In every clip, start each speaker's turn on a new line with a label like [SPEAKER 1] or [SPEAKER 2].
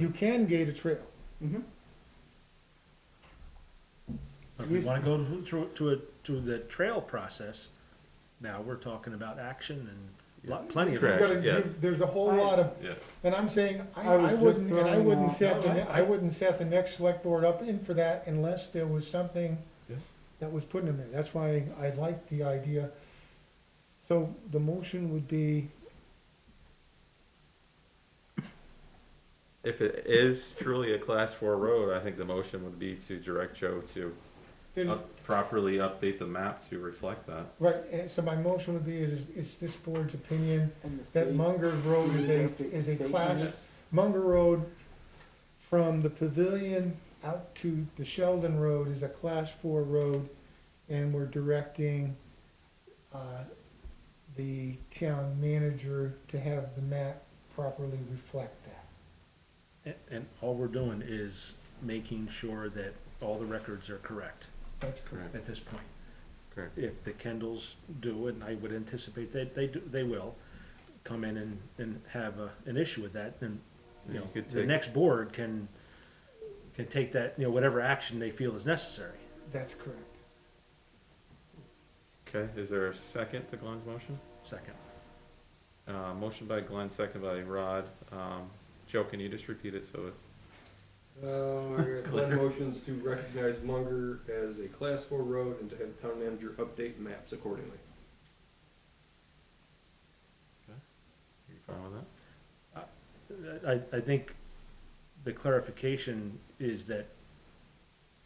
[SPEAKER 1] you can gate a trail.
[SPEAKER 2] But if we wanna go to, to, to a, to the trail process, now we're talking about action and lot, plenty of
[SPEAKER 1] You
[SPEAKER 2] action.
[SPEAKER 1] gotta-
[SPEAKER 3] yes.
[SPEAKER 1] you- There's a whole lot of,
[SPEAKER 3] Yeah.
[SPEAKER 1] and I'm saying, I,
[SPEAKER 4] I was
[SPEAKER 1] I
[SPEAKER 4] just
[SPEAKER 1] wouldn't, and I
[SPEAKER 4] throwing
[SPEAKER 1] wouldn't
[SPEAKER 4] out-
[SPEAKER 1] set, the ne- I wouldn't set the next select board up in for that unless there was something
[SPEAKER 3] Yeah.
[SPEAKER 1] that was put in there. That's why I like the idea. So the motion would be,
[SPEAKER 3] If it is truly a class four road, I think the motion would be to direct Joe to
[SPEAKER 1] there's-
[SPEAKER 3] up- properly update the map to reflect that.
[SPEAKER 1] right, and so my motion would be, is, it's this board's opinion
[SPEAKER 4] And the
[SPEAKER 1] that
[SPEAKER 4] state-
[SPEAKER 1] Munger Road is a, is a class Munger Road from the pavilion out to the Sheldon Road is a class four road, and we're directing, uh, the town manager to have the map properly reflect that.
[SPEAKER 2] And, and all we're doing is making sure that all the records are correct
[SPEAKER 1] That's correct.
[SPEAKER 2] at this point.
[SPEAKER 3] Correct.
[SPEAKER 2] If the Kendalls do it, and I would anticipate that they do, they will, come in and, and have a, an issue with that, then, you
[SPEAKER 3] You
[SPEAKER 2] know,
[SPEAKER 3] could
[SPEAKER 2] the
[SPEAKER 3] take-
[SPEAKER 2] next board can, can take that, you know, whatever action they feel is necessary.
[SPEAKER 1] That's correct.
[SPEAKER 3] Okay, is there a second to Glenn's motion?
[SPEAKER 2] Second.
[SPEAKER 3] Uh, motion by Glenn, second by Rod. Um, Joe, can you just repeat it so it's,
[SPEAKER 5] Um, I got Glenn motions to recognize Munger as a class four road and to have town manager update maps accordingly.
[SPEAKER 3] you fine with that?
[SPEAKER 2] I, I think the clarification is that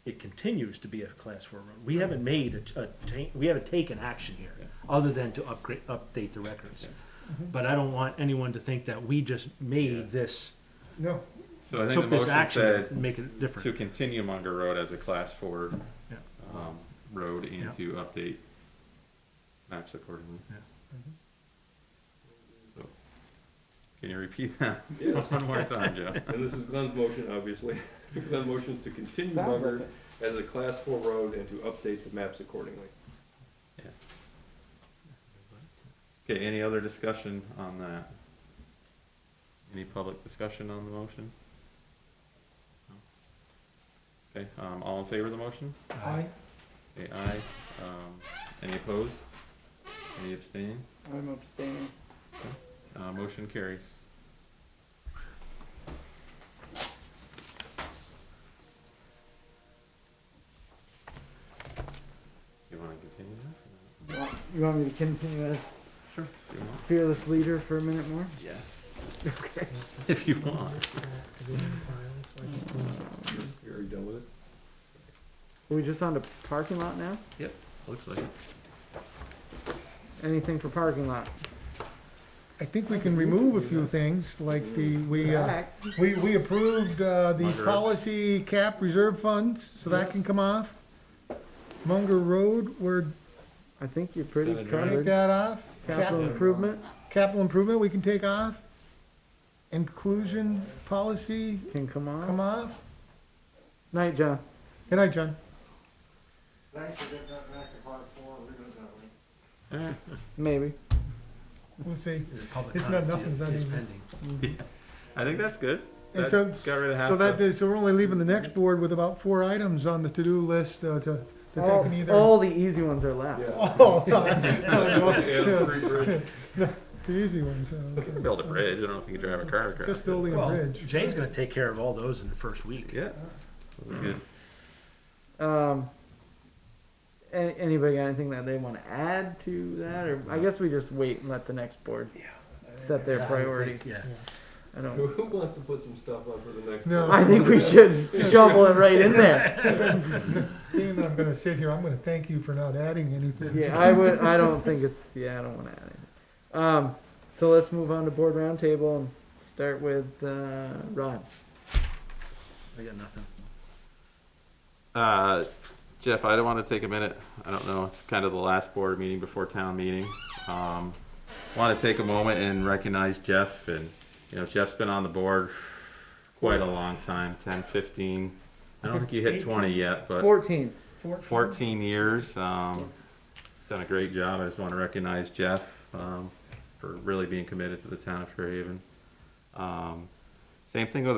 [SPEAKER 2] it continues to be a class four road. We haven't made a, a ta- we haven't taken action here,
[SPEAKER 3] Yeah.
[SPEAKER 2] other than to upgrade, update the records.
[SPEAKER 3] Yeah.
[SPEAKER 1] Mm-hmm.
[SPEAKER 2] But I don't want anyone to think that we just
[SPEAKER 3] Yeah.
[SPEAKER 2] made this,
[SPEAKER 1] No,
[SPEAKER 3] So I think the
[SPEAKER 2] took this
[SPEAKER 3] motion
[SPEAKER 2] action
[SPEAKER 3] said
[SPEAKER 2] and make it
[SPEAKER 3] to
[SPEAKER 2] different.
[SPEAKER 3] continue Munger Road as a class four,
[SPEAKER 2] Yeah.
[SPEAKER 3] um, road and
[SPEAKER 2] Yeah.
[SPEAKER 3] to update maps accordingly.
[SPEAKER 2] Yeah.
[SPEAKER 1] Mhm.
[SPEAKER 3] So, can you repeat that
[SPEAKER 5] Yeah.
[SPEAKER 3] one more time, Joe?
[SPEAKER 5] And this is Glenn's motion, obviously. Glenn motions to continue
[SPEAKER 4] Sounds like
[SPEAKER 5] Munger
[SPEAKER 4] it.
[SPEAKER 5] as a class four road and to update the maps accordingly.
[SPEAKER 3] Okay, any other discussion on that? Any public discussion on the motion? No. Okay, um, all in favor of the motion?
[SPEAKER 2] Uh,
[SPEAKER 1] I,
[SPEAKER 3] Okay, aye. Um, any opposed? Any abstain?
[SPEAKER 4] I'm abstaining.
[SPEAKER 3] Uh, motion carries. You wanna continue that?
[SPEAKER 4] You want- You want me to continue as
[SPEAKER 3] Sure. If you want.
[SPEAKER 4] fearless leader for a minute more?
[SPEAKER 3] Yes. If you want.
[SPEAKER 5] Are you done with it?
[SPEAKER 4] Are we just on to parking lot now?
[SPEAKER 3] Looks like it.
[SPEAKER 4] Anything for parking lot?
[SPEAKER 1] I think we can remove a few things, like the, we, uh,
[SPEAKER 4] Back.
[SPEAKER 1] we, we approved, uh, the
[SPEAKER 3] Munger.
[SPEAKER 1] policy cap reserve funds, so that can come off. Munger Road, we're,
[SPEAKER 4] I think you're pretty
[SPEAKER 3] Gotta drive.
[SPEAKER 1] take
[SPEAKER 4] covered.
[SPEAKER 1] that off. Cap-
[SPEAKER 4] Capital improvement,
[SPEAKER 1] Capital improvement, we can take off. Inclusion policy,
[SPEAKER 4] can come
[SPEAKER 1] come
[SPEAKER 4] on.
[SPEAKER 1] off.
[SPEAKER 4] Night, John.
[SPEAKER 1] Good night, John.
[SPEAKER 6] Thanks for getting that back to part four, we're gonna do it.
[SPEAKER 4] Maybe.
[SPEAKER 1] We'll see.
[SPEAKER 2] Public
[SPEAKER 1] It's not-
[SPEAKER 2] comments
[SPEAKER 1] nothing's not
[SPEAKER 2] is
[SPEAKER 1] even-
[SPEAKER 2] pending.
[SPEAKER 3] I think that's good.
[SPEAKER 1] And
[SPEAKER 3] That
[SPEAKER 1] so,
[SPEAKER 3] got rid of half
[SPEAKER 1] so that,
[SPEAKER 3] the-
[SPEAKER 1] is- so we're only leaving the next board with about four items on the to-do list uh, to, that
[SPEAKER 4] All,
[SPEAKER 1] they can either.
[SPEAKER 4] all the easy ones are left.
[SPEAKER 5] Yeah.
[SPEAKER 1] Oh, no,
[SPEAKER 5] Yeah, free bridge.
[SPEAKER 1] The easy ones, uh, okay.
[SPEAKER 3] Build a bridge. I don't know if you can drive a car across.
[SPEAKER 1] Just
[SPEAKER 3] it.
[SPEAKER 1] building a
[SPEAKER 2] Well,
[SPEAKER 1] bridge.
[SPEAKER 2] Jay's gonna take care of all those in the first week.
[SPEAKER 5] Uh-huh.
[SPEAKER 3] Yeah. That's good.
[SPEAKER 4] Um, a- anybody got anything that they wanna add to that, or I guess we just wait and let the next board set
[SPEAKER 2] Yeah,
[SPEAKER 4] their
[SPEAKER 2] I think-
[SPEAKER 4] priorities?
[SPEAKER 2] Yeah.
[SPEAKER 4] I don't,
[SPEAKER 5] Who wants to put some stuff on for the next?
[SPEAKER 1] No.
[SPEAKER 5] one?
[SPEAKER 4] I think we should shovel it right in there.
[SPEAKER 1] Being that I'm gonna sit here, I'm gonna thank you for not adding anything.
[SPEAKER 4] Yeah, I would, I don't think it's, yeah, I don't wanna add it. Um, so let's move on to board roundtable and start with, uh, Rod.
[SPEAKER 2] I got nothing.
[SPEAKER 3] Uh, Jeff, I don't want to take a minute. I don't know. It's kind of the last board meeting before town meeting. Um, want to take a moment and recognize Jeff and, you know, Jeff's been on the board quite a long time, 10, 15. I don't think you hit 20 yet, but
[SPEAKER 4] Fourteen.
[SPEAKER 1] Fourteen.
[SPEAKER 3] 14 years. Um, done a great job. I just want to recognize Jeff um, for really being committed to the town of Fairhaven. Um, same thing with